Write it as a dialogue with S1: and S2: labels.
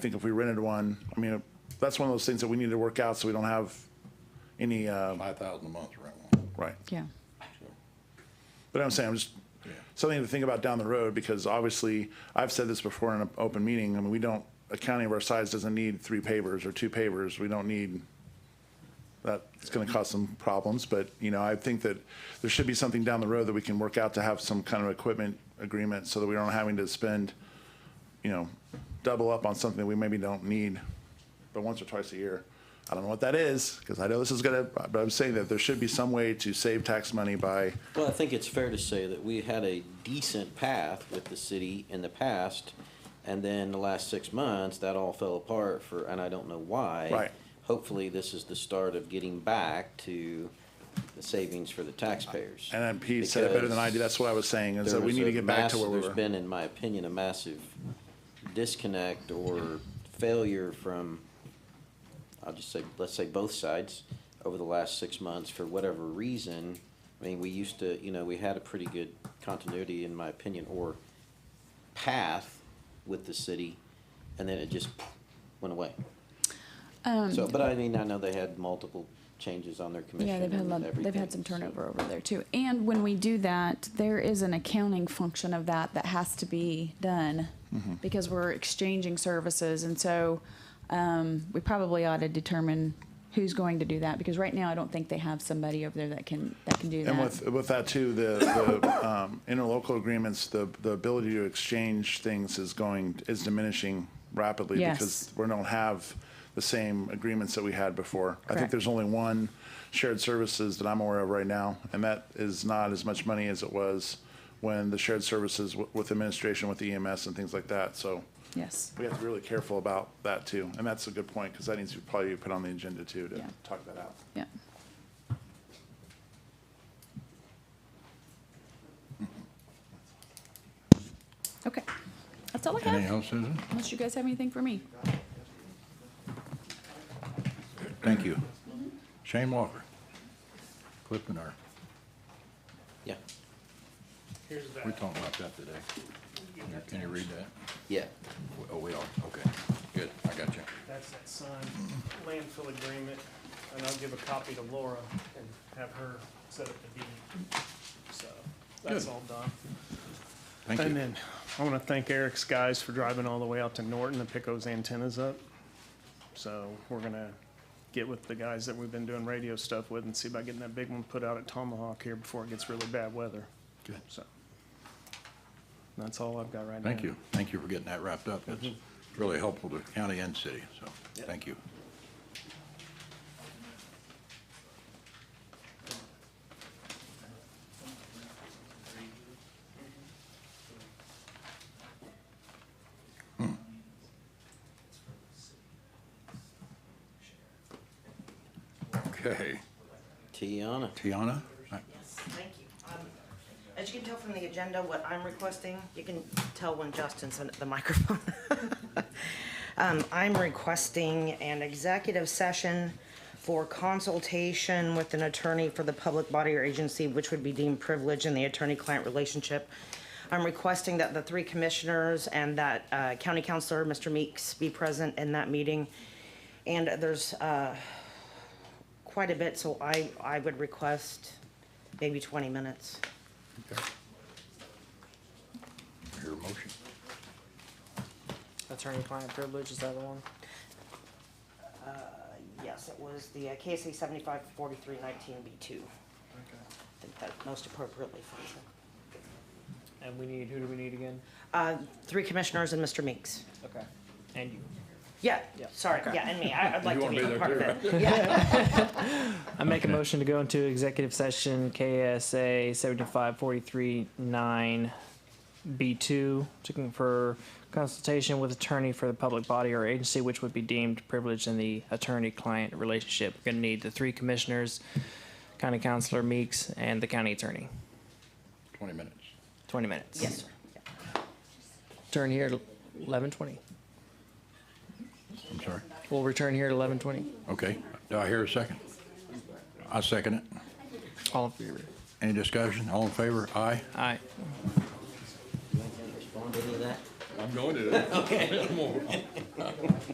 S1: think if we rented one, I mean, that's one of those things that we need to work out so we don't have any, uh,
S2: Five thousand a month to rent one,
S1: right.
S3: Yeah.
S2: so,
S1: But I'm saying, I'm just,
S2: yeah.
S1: something to think about down the road, because obviously, I've said this before in an open meeting, I mean, we don't, a county of our size doesn't need three pavers or two pavers, we don't need, that. It's gonna cause some problems, but, you know, I think that there should be something down the road that we can work out to have some kind of equipment agreement, so that we aren't having to spend, you know, double up on something that we maybe don't need, but once or twice a year. I don't know what that is, because I know this is gonna, but I'm saying that there should be some way to save tax money by,
S4: Well, I think it's fair to say that we had a decent path with the city in the past, and then the last six months, that all fell apart for, and I don't know why.
S1: Right.
S4: Hopefully, this is the start of getting back to the savings for the taxpayers.
S1: And then Pete said it better than I did. That's what I was saying, is that we
S4: There's
S1: need
S4: a
S1: to get back to
S4: mass-
S1: where we
S4: There's
S1: were.
S4: been, in my opinion, a massive disconnect or failure from, I'll just say, let's say both sides over the last six months for whatever reason. I mean, we used to, you know, we had a pretty good continuity, in my opinion, or path with the city, and then it just went away.
S3: Um,
S4: So, but I mean, I know they had multiple changes on their commission
S3: Yeah, they've had, a
S4: and
S3: lot-
S4: everything.
S3: they've had some
S4: so-
S3: turnover over there too. And when we do that, there is an accounting function of that that has to be done
S4: Mm-hmm.
S3: because we're exchanging services. And so, um, we probably ought to determine who's going to do that because right now I don't think they have somebody over there that can, that can do
S1: And
S3: that.
S1: with, with that too, the, the, um, interlocal agreements, the, the ability to exchange things is going, is diminishing rapidly.
S3: Yes.
S1: Because we don't have the same agreements that we had before. I think
S3: Correct.
S1: there's only one shared services that I'm aware of right now, and that is not as much money as it was when the shared services w- with administration, with EMS and things like that, so.
S3: Yes.
S1: We have to be really careful about that too, and that's a good point, because that needs to probably be put on the agenda too, to
S3: Yeah.
S1: talk that out.
S3: Yeah.
S4: Mm-hmm.
S3: Okay. That's all I
S2: Anything
S3: have.
S2: else, Susan?
S3: Unless you guys have anything for me.
S2: Thank you. Shane Walker, Cliftonor,
S4: Yeah,
S5: Here's that.
S2: we talked about that today. Can you read that?
S4: yeah.
S2: Oh, we are, okay, good, I got you.
S5: That's that signed landfill agreement, and I'll give a copy to Laura and have her set up the deed. So, that's
S2: Good.
S5: all done.
S2: Thank
S5: And
S2: you.
S5: then, I want to thank Eric's guys for driving all the way out to Norton to pick those antennas up. So, we're gonna get with the guys that we've been doing radio stuff with and see about getting that big one put out at Tomahawk here before it gets really bad weather,
S2: Good.
S5: so. That's all I've got right now.
S2: Thank you, thank you for getting that wrapped up. It's really helpful to county and city, so, thank you. Hmm. Okay,
S4: Tiana.
S2: Tiana? I-
S6: Yes, thank you. Um, As you can tell from the agenda, what I'm requesting, you can tell when Justin's at the microphone. Um, I'm requesting an executive session for consultation with an attorney for the public body or agency, which would be deemed privileged in the attorney-client relationship. I'm requesting that the three commissioners and that uh, county counselor, Mr. Meeks, be present in that meeting. And there's uh, quite a bit, so I, I would request maybe 20 minutes.
S2: Your motion.
S7: Attorney-client privilege, is that the one?
S6: Uh, Yes, it was the uh, KSA 754319B2. I think that most appropriately falls in.
S7: And we need, who do we need again?
S6: Uh, Three commissioners and Mr. Meeks.
S7: Okay. And you.
S6: Yeah,
S7: Yeah.
S6: sorry, yeah, and me, I- I'd like to
S2: wanna be
S6: be a
S2: there
S6: part of
S2: too,
S6: it. Yeah,
S7: I make a motion to go into executive session KSA seventy-five forty-three nine B two to confer consultation with attorney for the public body or agency which would be deemed privileged in the attorney-client relationship. We're gonna need the three commissioners, county counselor Meeks, and the county attorney.
S2: 20 minutes.
S7: Twenty minutes.
S6: yes, sir. Yeah.
S7: Turn here at eleven twenty.
S2: I'm sorry.
S7: We'll return here at eleven twenty.
S2: Okay, do I hear a second? I second it.
S7: All in favor?
S2: Any discussion? All in favor? Aye?
S7: Aye.
S4: You ain't gonna respond to any of that?
S2: I'm going to. Okay.